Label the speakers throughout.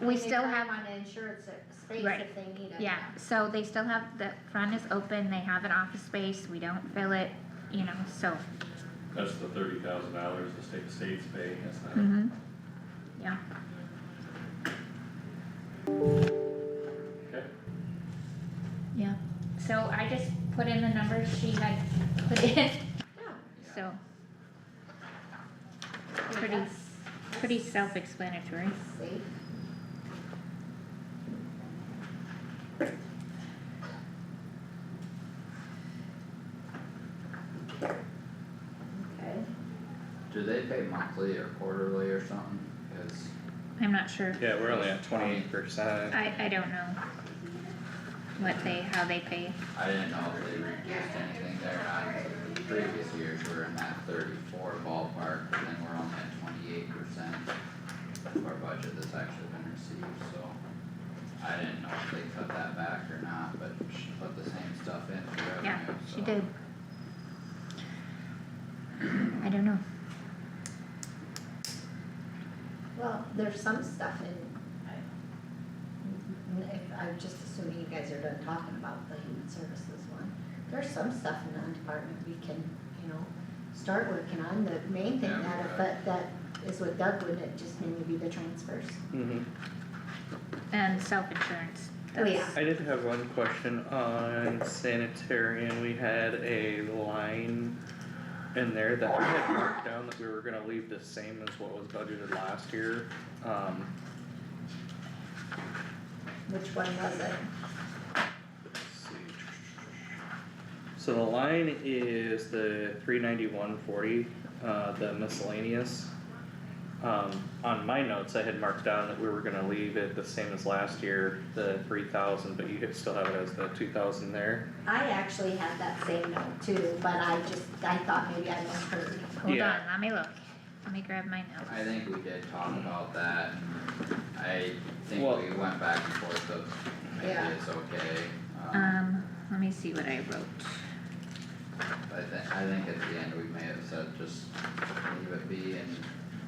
Speaker 1: We still have-
Speaker 2: On an insured s- space
Speaker 1: Right.
Speaker 2: if they need it.
Speaker 1: Yeah, so they still have, the front is open, they have an office space, we don't fill it, you know, so,
Speaker 3: That's the thirty thousand dollars the state, state's paying, that's not,
Speaker 1: mhm. Yeah,
Speaker 3: okay?
Speaker 1: yeah. So I just put in the numbers she had put in,
Speaker 2: No,
Speaker 1: so
Speaker 2: I mean,
Speaker 1: Pretty-
Speaker 2: that's-
Speaker 1: pretty
Speaker 2: that's
Speaker 1: self-explanatory.
Speaker 2: Safe. Okay.
Speaker 4: Do they pay monthly or quarterly or something? Cause
Speaker 1: I'm not sure.
Speaker 5: Yeah, we're only at twenty-eight percent.
Speaker 1: I, I don't know what they, how they pay.
Speaker 4: I didn't know if they reduced anything there, I, previous years were in that thirty-four ballpark, but then we're only at twenty-eight percent of our budget that's actually been received, so. I didn't know if they cut that back or not, but she put the same stuff in for revenue,
Speaker 1: Yeah,
Speaker 4: so.
Speaker 1: she did. I don't know.
Speaker 2: Well, there's some stuff in, I, n- if- I'm just assuming you guys are done talking about the human services one. There's some stuff in that department we can, you know, start working on, the main thing
Speaker 4: Yeah, we
Speaker 2: that, but
Speaker 4: got
Speaker 2: that is what Doug would, it just mainly be the transfers.
Speaker 5: Mm-hmm.
Speaker 1: And self-insurance.
Speaker 2: Oh, yeah.
Speaker 5: I did have one question on sanitarian, we had a line in there that we had marked down that we were gonna leave the same as what was budgeted last year. Um,
Speaker 2: Which one was it?
Speaker 5: let's see. So the line is the three ninety-one forty, uh, the miscellaneous. Um, on my notes, I had marked down that we were gonna leave it the same as last year, the three thousand, but you could still have it as the two thousand there.
Speaker 2: I actually had that same note too, but I just, I thought maybe I misheard.
Speaker 1: Hold on,
Speaker 5: Yeah.
Speaker 1: let me look. Let me grab my
Speaker 4: I
Speaker 1: notes.
Speaker 4: think we did talk about that, I think
Speaker 5: Well-
Speaker 4: we went back and forth of maybe
Speaker 2: Yeah.
Speaker 4: it's okay,
Speaker 1: Um, let me see what I wrote.
Speaker 4: I think, I think at the end, we may have said just leave it be and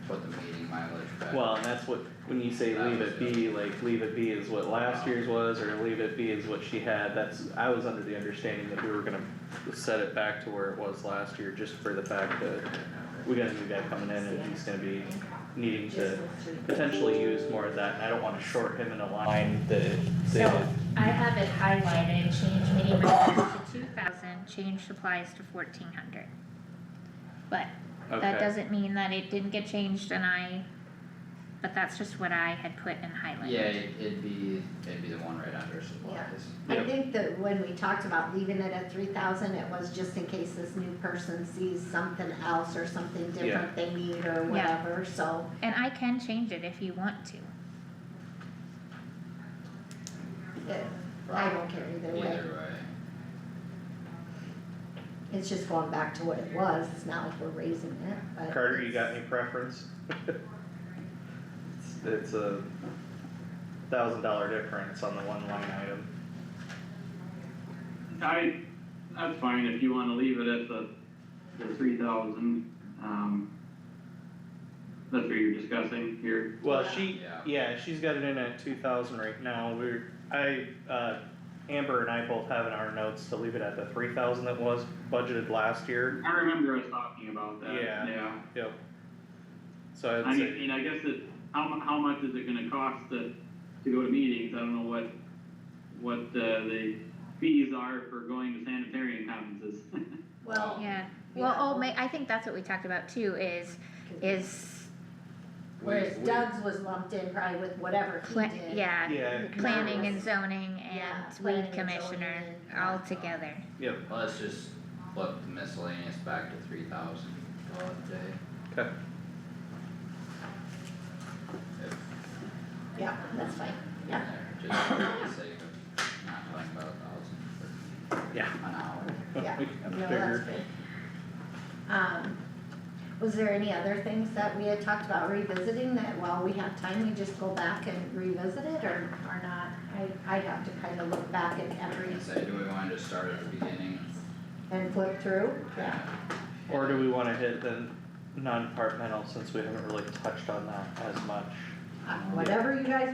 Speaker 4: put the meeting mileage back.
Speaker 5: Well, and that's what, when you say leave it be, like leave it be is what last year's was, or leave it be is what she had, that's, I was under the understanding that we were gonna set it back to where it was last year, just for the fact that we got a new guy coming in and he's gonna be needing to potentially use more of that, and I don't wanna short him in a line that,
Speaker 1: So
Speaker 5: that,
Speaker 1: I have it highlighted, change meeting minutes to two thousand, change supplies to fourteen hundred. But that
Speaker 5: okay,
Speaker 1: doesn't mean that it didn't get changed and I, but that's just what I had put and highlighted.
Speaker 4: Yeah, it- it'd be, it'd be the one right under supplies.
Speaker 2: I
Speaker 5: Yep.
Speaker 2: think that when we talked about leaving it at three thousand, it was just in case this new person sees something else or something different they need or
Speaker 1: Yeah.
Speaker 2: whatever, so.
Speaker 1: And I can change it if you want to.
Speaker 2: it- I don't care either way,
Speaker 4: Either way,
Speaker 2: it's just going back to what it was, it's not like we're raising it, but.
Speaker 5: Carter, you got
Speaker 2: it's-
Speaker 5: any preference? It's- It's a thousand dollar difference on the one line item.
Speaker 6: I, that's fine, if you wanna leave it at the, the three thousand, um, that's what you're discussing here.
Speaker 5: Well, she,
Speaker 4: Yeah.
Speaker 5: yeah, she's got it in at two thousand right now, we're, I, uh, Amber and I both have in our notes to leave it at the three thousand that was budgeted last year.
Speaker 6: I remember us talking about that,
Speaker 5: Yeah.
Speaker 6: yeah.
Speaker 5: Yep. So
Speaker 6: I
Speaker 5: I'd say,
Speaker 6: mean, I guess it, how mu- how much is it gonna cost to, to go to meetings, I don't know what, what, uh, the fees are for going to sanitarian conferences.
Speaker 2: Well,
Speaker 1: Yeah,
Speaker 2: Yeah.
Speaker 1: well, oh, ma- I think that's what we talked about too, is, is,
Speaker 2: whereas
Speaker 4: We- we-
Speaker 2: Doug's was lumped in probably with whatever he
Speaker 1: pla-
Speaker 2: did.
Speaker 1: yeah,
Speaker 5: yeah,
Speaker 1: planning and
Speaker 2: Yes.
Speaker 1: zoning
Speaker 2: Yeah,
Speaker 1: and
Speaker 2: planning
Speaker 1: weed
Speaker 2: and
Speaker 1: commissioner
Speaker 2: zoning and-
Speaker 1: all together.
Speaker 5: yep,
Speaker 4: well, let's just flip the miscellaneous back to three thousand, call it a day.
Speaker 5: okay,
Speaker 4: If
Speaker 2: Yeah, that's fine, yeah.
Speaker 4: they're Just for the sake of not talking about a thousand
Speaker 5: yeah.
Speaker 4: for an hour.
Speaker 2: Yeah, no, that's
Speaker 5: Bigger.
Speaker 2: good. Um, was there any other things that we had talked about revisiting that while we have time, we just go back and revisit it or, or not? I, I'd have to kind of look back at every
Speaker 4: Say, do we wanna just start at the beginning?
Speaker 2: and flip through, yeah.
Speaker 5: Or do we wanna hit the non-departmental, since we haven't really touched on that as much?
Speaker 2: Uh, Whatever you guys